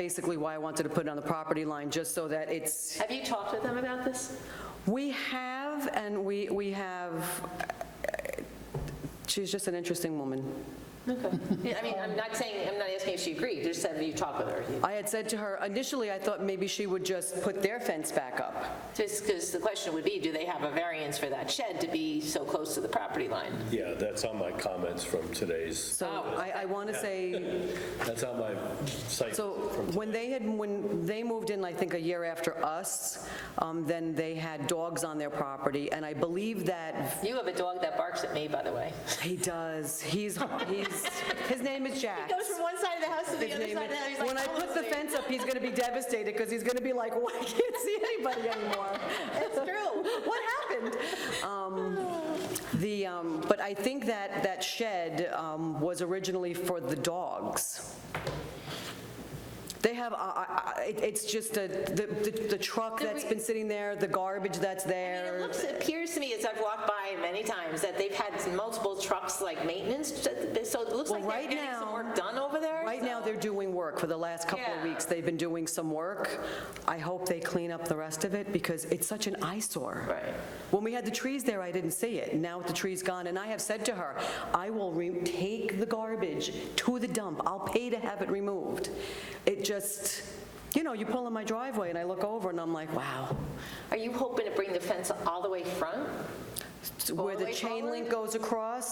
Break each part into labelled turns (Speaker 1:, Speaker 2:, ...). Speaker 1: basically why I wanted to put it on the property line, just so that it's,
Speaker 2: Have you talked with them about this?
Speaker 1: we have, and we, we have, uh, she's just an interesting woman.
Speaker 2: Okay. Yeah, I mean, I'm not saying, I'm not asking if she agreed, just have you talked with her?
Speaker 1: I had said to her, initially, I thought maybe she would just put their fence back up.
Speaker 2: Just because the question would be, do they have a variance for that shed to be so close to the property line?
Speaker 3: Yeah, that's on my comments from today's,
Speaker 1: So I, I want to say,
Speaker 3: that's on my site.
Speaker 1: so when they had, when they moved in, I think, a year after us, um, then they had dogs on their property, and I believe that
Speaker 2: You have a dog that barks at me, by the way.
Speaker 1: he does, he's, he's, his name is Jack.
Speaker 2: Goes from one side of the house to the
Speaker 1: His
Speaker 2: other
Speaker 1: name
Speaker 2: side of the house.
Speaker 1: is-
Speaker 2: He's like,
Speaker 1: When I
Speaker 2: "Oh,
Speaker 1: put the
Speaker 2: it's me."
Speaker 1: fence up, he's going to be devastated because he's going to be like, "Why I can't see anybody anymore.
Speaker 2: It's true.
Speaker 1: What happened? Um, The, um, but I think that that shed um, was originally for the dogs. They have, uh, uh, it- it's just a- the the- the truck that's been sitting there, the garbage that's
Speaker 2: And It
Speaker 1: there.
Speaker 2: looks, it appears to me, as I've walked by many times, that they've had multiple trucks like maintenance, so it looks
Speaker 1: Well,
Speaker 2: like they're
Speaker 1: right
Speaker 2: getting some
Speaker 1: now-
Speaker 2: work done over there.
Speaker 1: Right now, they're doing work. For the last couple of
Speaker 2: Yeah.
Speaker 1: weeks, they've been doing some work. I hope they clean up the rest of it because it's such an eyesore.
Speaker 2: Right.
Speaker 1: When we had the trees there, I didn't see it. Now with the trees gone, and I have said to her, I will re- take the garbage to the dump. I'll pay to have it removed. It just, you know, you pull in my driveway and I look over and I'm like, wow.
Speaker 2: Are you hoping to bring the fence all the way front?
Speaker 1: Where
Speaker 2: the
Speaker 1: the
Speaker 2: way
Speaker 1: chain
Speaker 2: forward?
Speaker 1: link goes across,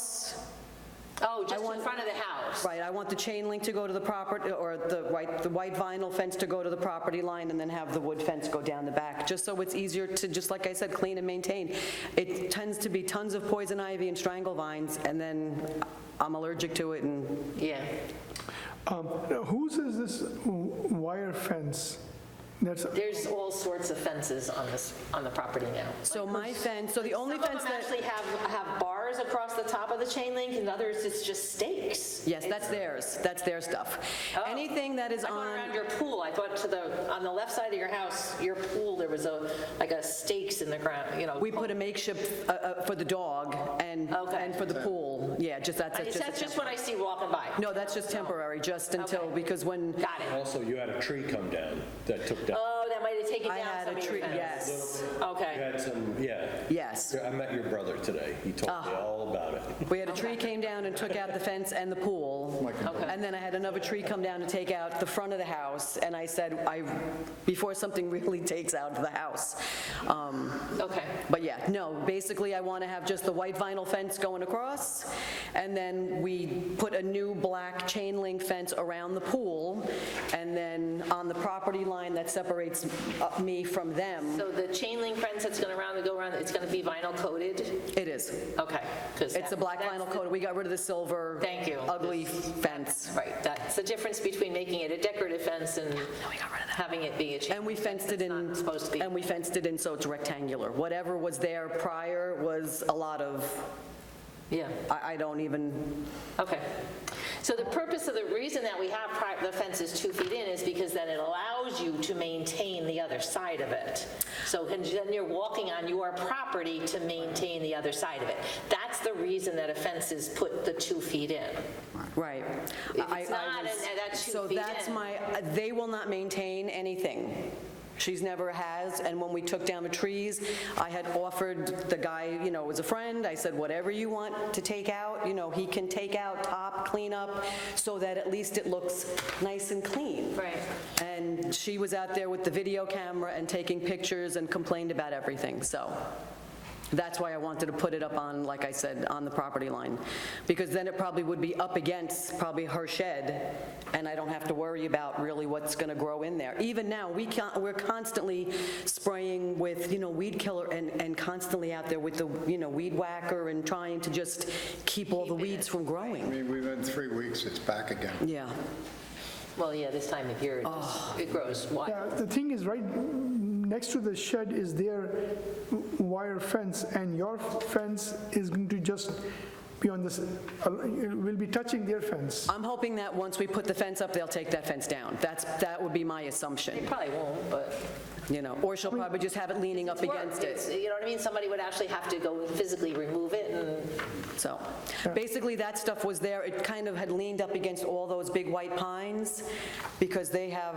Speaker 2: Oh, just in front of the house?
Speaker 1: right, I want the chain link to go to the property, or the white, the white vinyl fence to go to the property line and then have the wood fence go down the back, just so it's easier to, just like I said, clean and maintain. It tends to be tons of poison ivy and strangle vines, and then I'm allergic to it and
Speaker 2: Yeah.
Speaker 4: Um, Whose is this w- wire fence? That's,
Speaker 2: There's all sorts of fences on this, on the property now.
Speaker 1: So my fence, so the only
Speaker 2: Some of them
Speaker 1: fence that,
Speaker 2: actually have, have bars across the top of the chain link, and others, it's just stakes.
Speaker 1: yes, that's theirs, that's their stuff. Anything that is
Speaker 2: Oh. I thought around
Speaker 1: on,
Speaker 2: your pool, I thought to the, on the left side of your house, your pool, there was a, like a stakes in the ground, you know.
Speaker 1: we put a makeshift uh, uh, for the dog and,
Speaker 2: Okay. Uh,
Speaker 1: and for the pool, yeah, just that's,
Speaker 2: I-
Speaker 1: that's
Speaker 2: That's
Speaker 1: just, a
Speaker 2: just
Speaker 1: temp-
Speaker 2: what I see walking by.
Speaker 1: no, that's just temporary, just until,
Speaker 2: Okay.
Speaker 1: because when
Speaker 2: Got it.
Speaker 3: Also, you had a tree come down that took down,
Speaker 2: Oh, that might have taken
Speaker 1: I
Speaker 2: down
Speaker 1: had
Speaker 2: some
Speaker 1: a
Speaker 2: of your
Speaker 1: tree,
Speaker 2: fence.
Speaker 1: yes,
Speaker 3: you
Speaker 2: Okay.
Speaker 3: had some, yeah.
Speaker 1: yes.
Speaker 3: I met your brother today, he told me all about it.
Speaker 1: We had a tree came down and took out the fence and the pool.
Speaker 2: Okay.
Speaker 1: And then I had another tree come down to take out the front of the house, and I said, I, before something really takes out the house. Um,
Speaker 2: Okay.
Speaker 1: But yeah, no, basically, I want to have just the white vinyl fence going across, and then we put a new black chain link fence around the pool, and then on the property line that separates uh, me from them,
Speaker 2: So the chain link fence that's going to round and go around, it's going to be vinyl coated?
Speaker 1: it is.
Speaker 2: Okay. 'cause
Speaker 1: It's a
Speaker 2: that-
Speaker 1: black
Speaker 2: that's
Speaker 1: vinyl
Speaker 2: the-
Speaker 1: coat. We got rid of the silver.
Speaker 2: Thank you.
Speaker 1: Ugly fence.
Speaker 2: Right, that's the difference between making it a decorative fence and
Speaker 1: Oh,
Speaker 2: having it be a chain.
Speaker 1: And we fenced it in.
Speaker 2: not supposed to be.
Speaker 1: And we fenced it in so it's rectangular. Whatever was there prior was a lot of,
Speaker 2: Yeah,
Speaker 1: I I don't even,
Speaker 2: okay. So the purpose of the reason that we have pri- the fence is two feet in is because then it allows you to maintain the other side of it. So can- then you're walking on your property to maintain the other side of it. That's the reason that a fence is put the two feet in.
Speaker 1: right.
Speaker 2: If
Speaker 1: I-
Speaker 2: it's
Speaker 1: I
Speaker 2: not,
Speaker 1: was-
Speaker 2: and that's two
Speaker 1: So
Speaker 2: feet
Speaker 1: that's
Speaker 2: in.
Speaker 1: my, uh, they will not maintain anything. She's never has, and when we took down the trees, I had offered the guy, you know, was a friend, I said, whatever you want to take out, you know, he can take out, top, clean up, so that at least it looks nice and clean.
Speaker 2: Right.
Speaker 1: And she was out there with the video camera and taking pictures and complained about everything, so that's why I wanted to put it up on, like I said, on the property line, because then it probably would be up against probably her shed, and I don't have to worry about really what's going to grow in there. Even now, we can't, we're constantly spraying with, you know, weed killer and, and constantly out there with the, you know, weed whacker and trying to just keep all the weeds from
Speaker 5: I
Speaker 1: growing.
Speaker 5: mean, we've been three weeks, it's back again.
Speaker 1: Yeah.
Speaker 2: Well, yeah, this time of year, it
Speaker 1: Oh.
Speaker 2: just- it grows wild.
Speaker 4: yeah, the thing is, right next to the shed is their w- wire fence, and your fence is going to just be on this, uh, it will be touching their fence.
Speaker 1: I'm hoping that once we put the fence up, they'll take that fence down. That's, that would be my
Speaker 2: It
Speaker 1: assumption,
Speaker 2: probably won't, but.
Speaker 1: you know, or she'll probably just have it leaning up
Speaker 2: It's work.
Speaker 1: against it.
Speaker 2: It's- You know what I mean? Somebody would actually have to go physically remove it and,
Speaker 1: So basically, that stuff was there. It kind of had leaned up against all those big white pines because they have